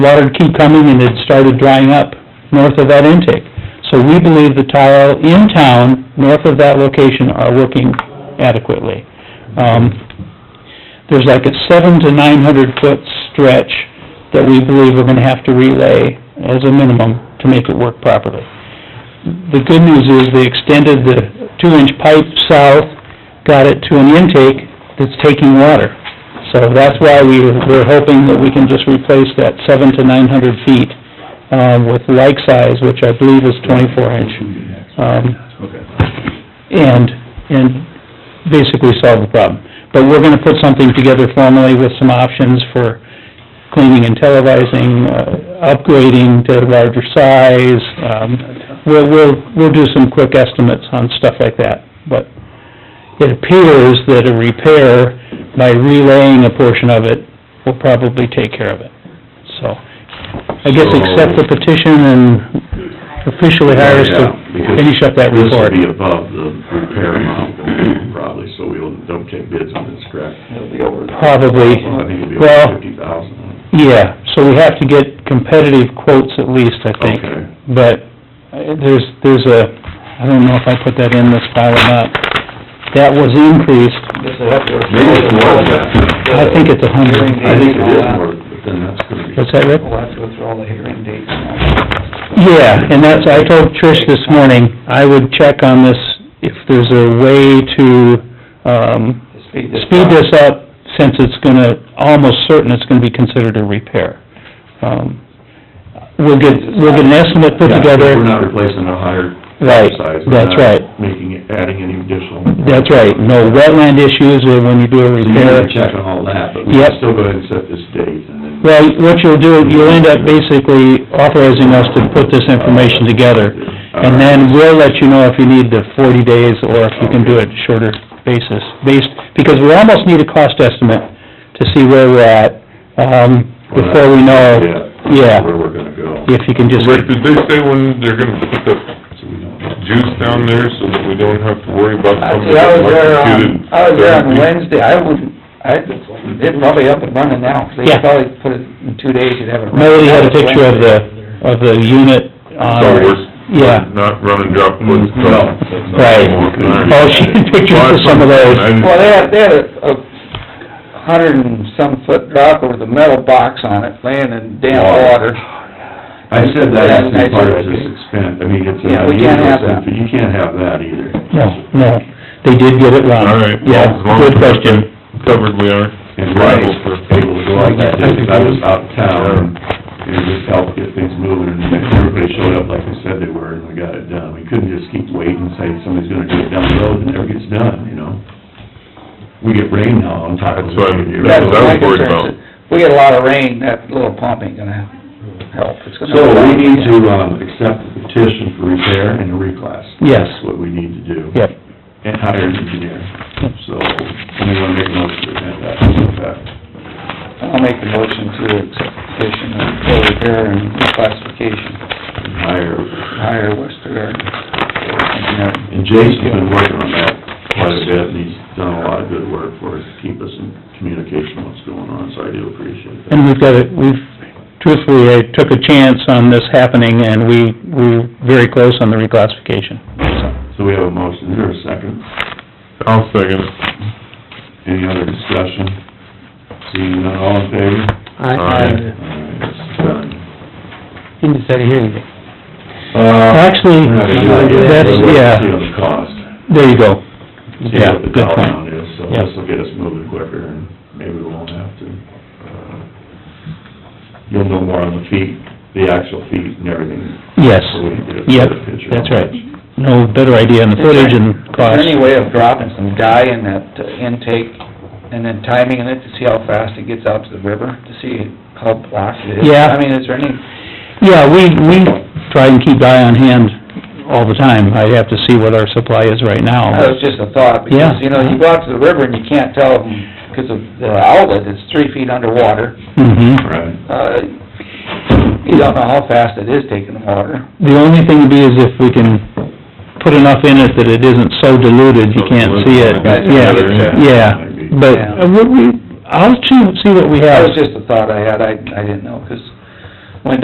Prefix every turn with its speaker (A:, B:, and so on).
A: water keep coming and it started drying up north of that intake. So we believe the tile in town, north of that location, are working adequately. Um, there's like a seven to nine hundred foot stretch that we believe we're gonna have to relay as a minimum to make it work properly. The good news is they extended the two-inch pipe south, got it to an intake that's taking water. So that's why we, were- we're hoping that we can just replace that seven to nine hundred feet, um, with like size, which I believe is twenty-four inch. Um, and, and basically solve the problem. But we're gonna put something together formally with some options for cleaning and televising, uh, upgrading to larger size. Um, we'll, we'll, we'll do some quick estimates on stuff like that, but it appears that a repair by relaying a portion of it will probably take care of it. So, I guess accept the petition and officially hire us to finish up that
B: This
A: report.
B: would be above the repair amount probably, so we'll, don't take bids on this, correct?
C: It'll be over.
A: Probably.
B: I think it'll be
A: Well-
B: over fifty thousand.
A: Yeah, so we have to get competitive quotes at least, I think.
B: Okay.
A: But uh, there's, there's a, I don't know if I put that in this file or not, that was increased,
B: Maybe it's more than that.
A: I think it's a hundred.
B: I think it is more, but then that's gonna be.
A: What's that, Rick?
C: We'll have to go through all the hearing dates and all that.
A: Yeah, and that's, I told Trish this morning, I would check on this, if there's a way to, um,
C: To speed this up.
A: speed this up, since it's gonna, almost certain it's gonna be considered a repair. Um, We'll get, we'll get an estimate put
B: Yeah,
A: together.
B: We're not replacing a higher
A: Right,
B: size. We're
A: that's
B: not
A: right.
B: Making, it- adding any additional.
A: That's right, no wetland issues or when you do a
B: So you need
A: repair.
B: to check on all that, but we
A: Yep.
B: can still go ahead and set this date and then.
A: Well, what you'll do, you'll end up basically authorizing us to put this information together. And then we'll let you know if you need the forty days or if you can do it shorter basis, based, because we almost need a cost estimate to see where we're at, um, before we know,
B: Yeah.
A: yeah,
B: Where we're gonna go.
A: if you can just,
D: Rick, did they say when they're gonna put the
B: So we don't know.
D: juice down there so that we don't have to worry about somebody
C: See, I was there on,
D: getting electrocuted?
C: I was there on
D: Therapy?
C: Wednesday, I wouldn't, I, it's probably up and running now, 'cause
A: Yeah.
C: they probably put it in two days, you'd have it. running.
A: Melody had a picture of the, of the unit on...
D: So we're-
A: Yeah.
D: we're uh, Not running drop wood stuff.
B: No.
A: Right. Oh, she had pictures of some of those.
C: Well, they had, they had a, a hundred and some foot drop with a metal box on it, laying in damp
B: Water.
C: water.
B: I said that as
C: Yeah, I
B: a part of
C: said-
B: this expense, I mean, it's
C: Yeah,
B: an
C: we can't have
B: unusual
C: that.
B: thing, but you can't have that either.
A: No, no, they did get it wrong.
D: All right, well,
A: Yeah,
D: as long as
A: good
D: we're
A: question.
D: covered, we are.
B: And right,
D: liable for-
B: able to go like that, because I was out of town, and it just helped get things moving, and everybody showed up like they said they were, and we got it done. We couldn't just keep waiting, and say somebody's gonna do it down the road, and it never gets done, you know? We get rain now on top of
D: That's
B: it.
D: what I'm-
C: That's
D: That's what
C: my
D: I was worried
C: concern,
D: about.
C: is if We get a lot of rain, that little pump ain't gonna help, it's gonna.
B: So we need to, um, accept the petition for repair and a reclass.
A: Yes.
B: That's what we need to do.
A: Yep.
B: And hire an engineer. So, anyone make a motion to that, that,
C: I'll make a motion to accept the petition of full repair and reclassification,
B: and hire
C: hire Western Garden. Engineering.
B: And Jake's been working on that quite a bit, and he's done a lot of good work for us, to keep us in communication what's going on, so I do appreciate that.
A: And we've got it, we've, truthfully, I took a chance on this happening, and we, we're very close on the reclassification.
B: So we have a motion, is there a second?
D: I'll second it.
B: Any other discussion? Seeing none, all in favor?
D: Aye.
B: Alright, this is done.
A: Didn't set a hearing date.
B: Uh,
A: Actually,
B: we're not gonna do that yet.
A: that's-
B: We'll wait
A: yeah.
B: and See on the cost,
A: There you go.
B: see
A: Yeah,
B: what the
A: good
B: dollar
A: point.
B: amount is, so
A: Yeah.
B: this will get us moving quicker, and maybe we won't have to. uh, You'll know more on the feet, the actual feet and everything,
A: Yes,
B: so we can get a
A: yep,
B: better picture.
A: that's right. No better idea on the footage and
C: Is there any
A: cost.
C: way of dropping some dye in that uh, intake and then timing it to see how fast it gets out to the river, to see how black it is?
A: Yeah.
C: I mean, is there any,
A: Yeah, we, we try and keep eye on hand all the time. I have to see what our supply is right now.
C: that was just a thought,
A: Yeah.
C: because, you know, you go out to the river and you can't tell because of the outlet, it's three feet underwater.
A: Mm-hmm.
B: Right.
C: Uh, you don't know how fast it is taking the water.
A: The only thing would be is if we can put enough in it that it isn't so diluted, you can't see it,
D: Right.
A: yeah, yeah. But, uh, we, we, I'll see, see what we
C: That
A: have.
C: was just a thought I had, I, I didn't know, 'cause